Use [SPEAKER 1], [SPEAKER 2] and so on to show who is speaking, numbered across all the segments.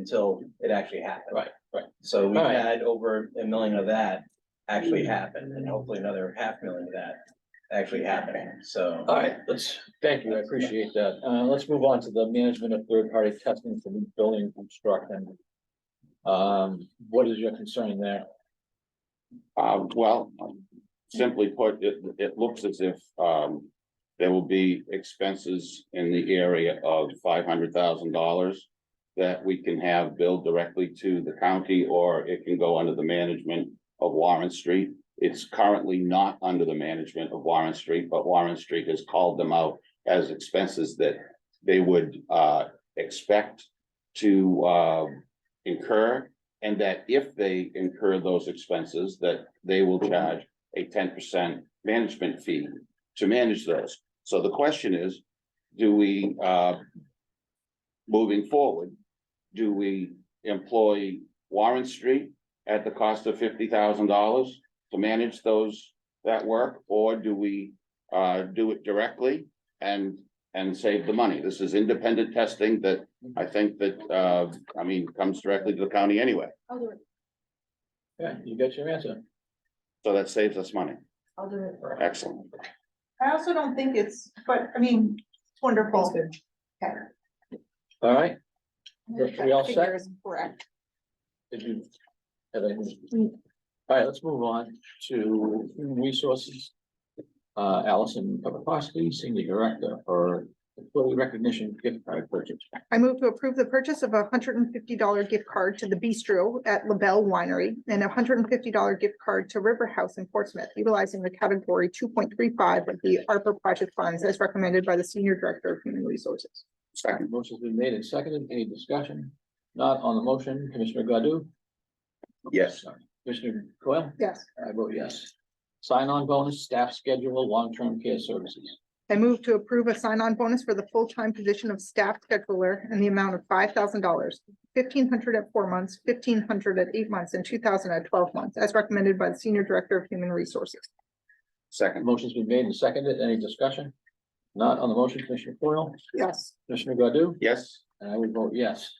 [SPEAKER 1] until it actually happened.
[SPEAKER 2] Right, right.
[SPEAKER 1] So we
[SPEAKER 2] Alright.
[SPEAKER 1] had over a million of that actually happen, and hopefully another half million of that actually happening, so.
[SPEAKER 2] All right, let's, thank you, I appreciate that. Uh, let's move on to the management of third-party testing for new building construction. Um, what is your concern there?
[SPEAKER 3] Uh, well, simply put, it, it looks as if, um, there will be expenses in the area of five hundred thousand dollars that we can have billed directly to the county, or it can go under the management of Warren Street. It's currently not under the management of Warren Street, but Warren Street has called them out as expenses that they would, uh, expect to, uh, incur. And that if they incur those expenses, that they will charge a ten percent management fee to manage those. So the question is, do we, uh, moving forward, do we employ Warren Street at the cost of fifty thousand dollars to manage those, that work? Or do we, uh, do it directly and, and save the money? This is independent testing that I think that, uh, I mean, comes directly to the county anyway,
[SPEAKER 4] I'll do it,
[SPEAKER 2] Yeah, you got your answer.
[SPEAKER 3] so that saves us money.
[SPEAKER 4] I'll do it.
[SPEAKER 3] Excellent.
[SPEAKER 5] I also don't think it's, but I mean, it's wonderful. Okay.
[SPEAKER 2] All right, we all set?
[SPEAKER 5] Figure is Correct.
[SPEAKER 2] did you? have anything? All right, let's move on to human resources. Uh, Allison Papakowski, Senior Director for Employee Recognition Gift Card Purchase.
[SPEAKER 5] I move to approve the purchase of a hundred and fifty dollar gift card to the Bistro at La Belle Winery and a hundred and fifty dollar gift card to River House in Portsmouth, utilizing the category two point three five of the ARPA project funds as recommended by the Senior Director of Human Resources.
[SPEAKER 3] Second.
[SPEAKER 2] Motion's been made and seconded. Any discussion? Not on the motion. Commissioner Godu?
[SPEAKER 3] Yes.
[SPEAKER 2] Commissioner Coyle?
[SPEAKER 5] Yes.
[SPEAKER 2] I vote yes. Sign-on bonus, staff schedule, long-term care services.
[SPEAKER 5] I move to approve a sign-on bonus for the full-time position of staff scheduler in the amount of five thousand dollars. Fifteen hundred dollars at four months, fifteen hundred dollars at eight months, and two thousand dollars at twelve months, as recommended by the Senior Director of Human Resources.
[SPEAKER 3] Second.
[SPEAKER 2] Motion's been made and seconded. Any discussion? Not on the motion. Commissioner Coyle?
[SPEAKER 5] Yes.
[SPEAKER 2] Commissioner Godu?
[SPEAKER 3] Yes.
[SPEAKER 2] And I would vote yes.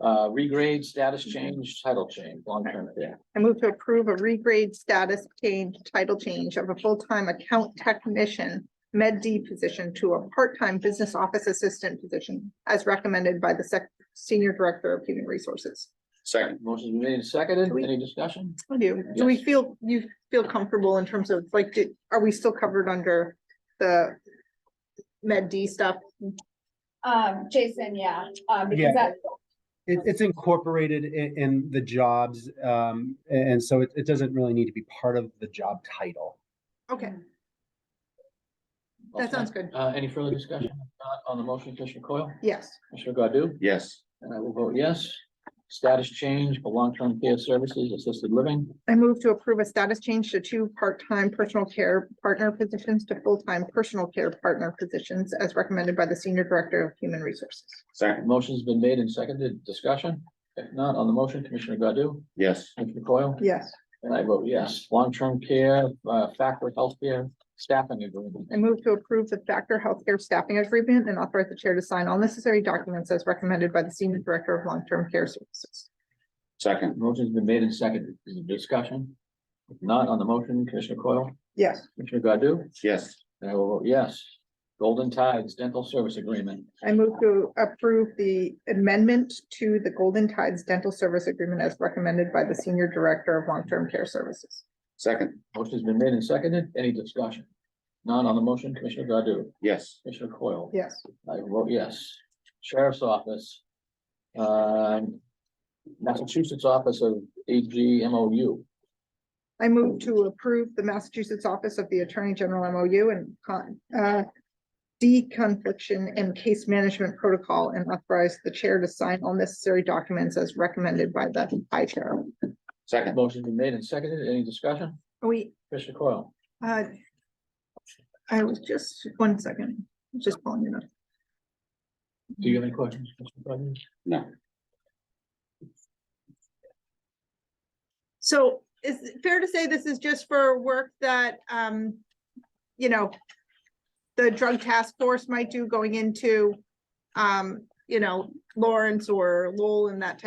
[SPEAKER 2] Uh, regrade, status
[SPEAKER 5] Mm-hmm.
[SPEAKER 2] change, title change, long-term care.
[SPEAKER 5] I move to approve a regrade status change, title change of a full-time account technician, Med D position to a part-time business office assistant position, as recommended by the Sec- Senior Director of Human Resources.
[SPEAKER 3] Second.
[SPEAKER 2] Motion's been made and seconded. Any discussion?
[SPEAKER 5] I do. Do we
[SPEAKER 2] Yes.
[SPEAKER 5] feel, you feel comfortable in terms of like, did- are we still covered under the Med D stuff?
[SPEAKER 4] Um, Jason, yeah, um,
[SPEAKER 6] Yeah.
[SPEAKER 4] because that,
[SPEAKER 6] It, it's incorporated in, in the jobs, um, and so it, it doesn't really need to be part of the job title.
[SPEAKER 5] Okay, that sounds good.
[SPEAKER 2] Uh, any further discussion? Not on the motion. Commissioner Coyle?
[SPEAKER 5] Yes.
[SPEAKER 2] Commissioner Godu?
[SPEAKER 3] Yes.
[SPEAKER 2] And I will vote yes. Status change for long-term care services, assisted living.
[SPEAKER 5] I move to approve a status change to two part-time personal care partner positions to full-time personal care partner positions as recommended by the Senior Director of Human Resources.
[SPEAKER 3] Second.
[SPEAKER 2] Motion's been made and seconded. Discussion? If not, on the motion, Commissioner Godu?
[SPEAKER 3] Yes.
[SPEAKER 2] Commissioner Coyle?
[SPEAKER 5] Yes.
[SPEAKER 2] And I vote yes. Long-term care, uh, Factor Healthcare Staffing Agreement.
[SPEAKER 5] I move to approve the Factor Healthcare Staffing Agreement and authorize the Chair to sign all necessary documents as recommended by the Senior Director of Long-Term Care Services.
[SPEAKER 3] Second.
[SPEAKER 2] Motion's been made and seconded. Is there discussion? If Not on the motion, Commissioner Coyle,
[SPEAKER 5] Yes.
[SPEAKER 2] Commissioner Godu,
[SPEAKER 3] Yes.
[SPEAKER 2] and I will vote yes. Golden Tides Dental Service Agreement.
[SPEAKER 5] I move to approve the amendment to the Golden Tides Dental Service Agreement as recommended by the Senior Director of Long-Term Care Services.
[SPEAKER 3] Second.
[SPEAKER 2] Motion's been made and seconded. Any discussion? Not on the motion, Commissioner Godu,
[SPEAKER 3] Yes.
[SPEAKER 2] Commissioner Coyle.
[SPEAKER 5] Yes.
[SPEAKER 2] I vote yes. Sheriff's Office. Um, Massachusetts Office of AG MOU.
[SPEAKER 5] I move to approve the Massachusetts Office of the Attorney General MOU and con, uh, deconfliction and case management protocol and authorize the chair to sign all necessary documents as recommended by the high chair.
[SPEAKER 3] Second.
[SPEAKER 2] Motion's been made and seconded. Any discussion?
[SPEAKER 5] We,
[SPEAKER 2] Commissioner Coyle.
[SPEAKER 5] uh, I was just, one second, just pulling it up.
[SPEAKER 2] Do you have any questions? Commissioner Godu?
[SPEAKER 3] No.
[SPEAKER 5] So is it fair to say this is just for work that, um, you know, the drug task force might do going into, um, you know, Lawrence or Lowell and that type